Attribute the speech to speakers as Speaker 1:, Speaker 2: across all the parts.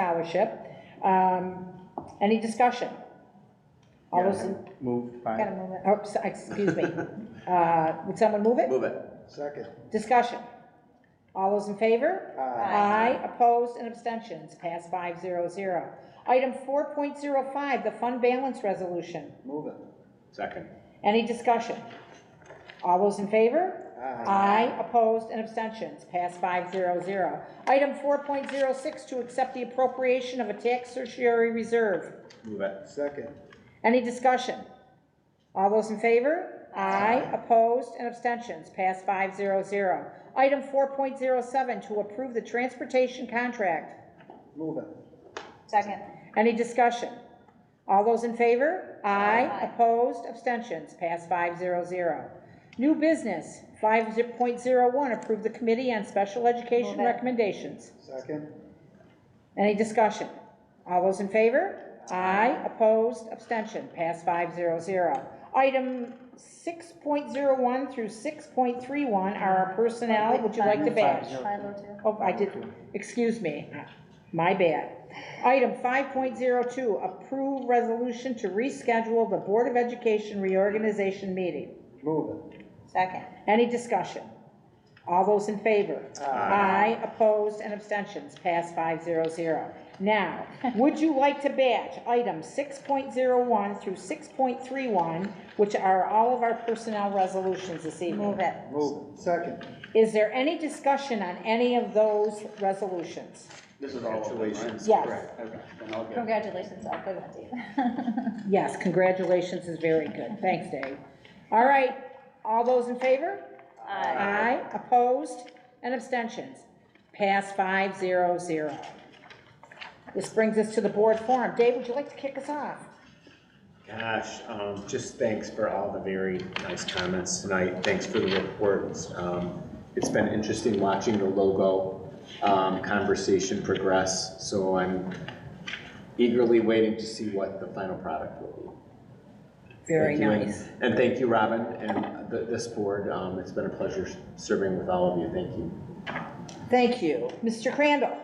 Speaker 1: scholarship. Um, Any discussion? All those, in-
Speaker 2: Moved
Speaker 1: gotta
Speaker 2: by,
Speaker 1: move it. Oh, so- excuse me. Uh, Would someone move it?
Speaker 3: Move it.
Speaker 4: Second.
Speaker 1: Discussion. All those in favor?
Speaker 3: Aye.
Speaker 1: opposed, and abstentions, pass five zero zero. Item four point zero five, the fund balance resolution.
Speaker 4: Move it.
Speaker 2: second.
Speaker 1: Any discussion? All those in favor? Aye. opposed, and abstentions, pass five zero zero. Item four point zero six, to accept the appropriation of a tax tertiary reserve.
Speaker 2: Move it.
Speaker 4: Second.
Speaker 1: Any discussion? All those in favor? Aye. Opposed and abstentions, pass five zero zero. Item four point zero seven, to approve the transportation contract.
Speaker 4: Move it.
Speaker 5: Second.
Speaker 1: Any discussion? All those in favor? Aye. Opposed, abstentions, pass five zero zero. New business, five point zero one, approve the committee on special education
Speaker 5: Move it.
Speaker 1: recommendations.
Speaker 4: Second.
Speaker 1: Any discussion? All those in favor? Aye. Opposed, abstention, pass five zero zero. Item six point zero one through six point three one are our personnel, would you like to badge?
Speaker 5: Five oh two.
Speaker 1: Oh, I did, excuse me, my bad. Item five point zero two, approve resolution to reschedule the Board of Education reorganization meeting.
Speaker 4: Move it.
Speaker 5: Second.
Speaker 1: Any discussion? All those in favor? Aye. opposed, and abstentions, pass five zero zero. Now, would you like to batch items six point zero one through six point three one, which are all of our personnel resolutions this
Speaker 5: Move
Speaker 1: evening?
Speaker 5: it.
Speaker 4: Move it. Second.
Speaker 1: Is there any discussion on any of those resolutions?
Speaker 3: This is all of them, right?
Speaker 1: Yes.
Speaker 3: Correct, okay, then I'll get it.
Speaker 5: Congratulations, I'll put that to
Speaker 1: Yes, congratulations is very good, thanks, Dave. All right, all those in favor? Aye. opposed, and abstentions. Pass five zero zero. This brings us to the board forum. Dave, would you like to kick us off?
Speaker 2: Gosh, um, just thanks for all the very nice comments tonight. Thanks for the reports. Um, it's been interesting watching the logo, um, conversation progress, so I'm eagerly waiting to see what the final product will be.
Speaker 1: Very
Speaker 2: Thank you, and-
Speaker 1: nice.
Speaker 2: And thank you, Robin, and th- this board. Um, It's been a pleasure serving with all of you. Thank you.
Speaker 1: Thank you. Mr. Crandall?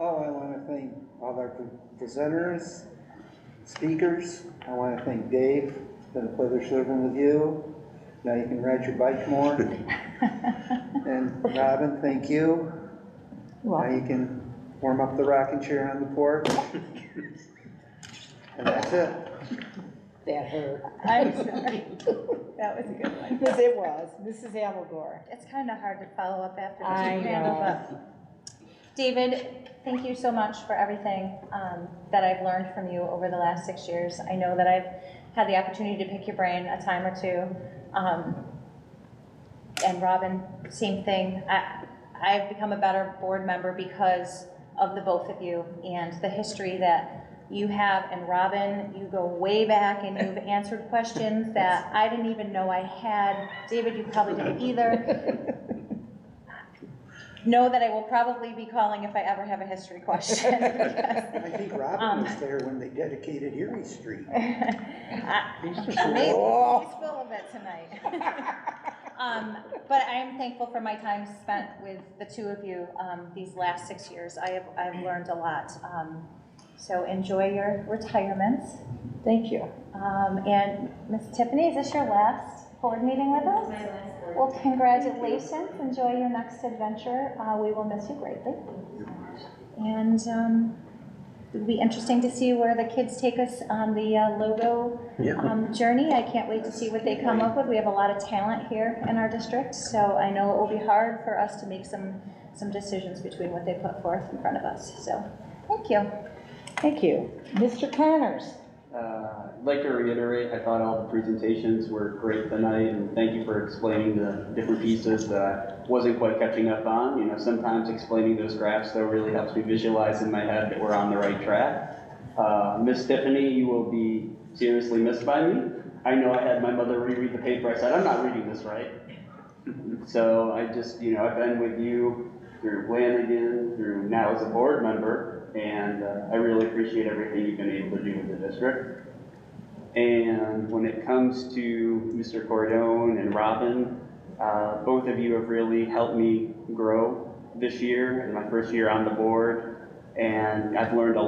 Speaker 4: Oh, I want to thank all our pre- presenters, speakers. I want to thank Dave. It's been a pleasure serving with you. Now you can ride your bike more. And Robin, thank you. Now you can warm up the rocking chair on the porch. And that's it.
Speaker 1: That hurt.
Speaker 5: I'm sorry. That was a good one.
Speaker 1: Yes, it was. Mrs. Alagore.
Speaker 5: It's kind of hard to follow up after
Speaker 1: I
Speaker 5: Mr. Crandall,
Speaker 1: know.
Speaker 5: but. David, thank you so much for everything um, that I've learned from you over the last six years. I know that I've had the opportunity to pick your brain a time or two. Um, And Robin, same thing. I, I've become a better board member because of the both of you and the history that you have. And Robin, you go way back and you've answered questions that I didn't even know I had. David, you probably didn't either. Know that I will probably be calling if I ever have a history question.
Speaker 4: I think Robin was there when they dedicated Erie Street.
Speaker 5: Maybe, he's
Speaker 1: Oh.
Speaker 5: full of it tonight. Um, but I am thankful for my time spent with the two of you, um, these last six years. I have, I've learned a lot. Um, so enjoy your retirements.
Speaker 1: Thank you.
Speaker 5: Um, and Miss Tiffany, is this your last board meeting with us? Well, congratulations. Enjoy your next adventure. Uh, we will miss you greatly. And, um, it'll be interesting to see where the kids take us on the uh, logo um, journey. I can't wait to see what they come up with. We have a lot of talent here in our district, so I know it will be hard for us to make some, some decisions between what they put forth in front of us. So, thank you.
Speaker 1: Thank you. Mr. Connors?
Speaker 3: Uh, I'd like to reiterate, I thought all the presentations were great tonight, and thank you for explaining the different pieces that I wasn't quite catching up on. You know, sometimes explaining those graphs, though, really helps me visualize in my head that we're on the right track. Uh, Miss Tiffany, you will be seriously missed by me. I know I had my mother reread the paper, I said, I'm not reading this right. So I just, you know, I've been with you through Lanigan, through now as a board member, and uh, I really appreciate everything you've been able to do with the district. And when it comes to Mr. Cordone and Robin, uh, both of you have really helped me grow this year, in my first year on the board. And I've learned a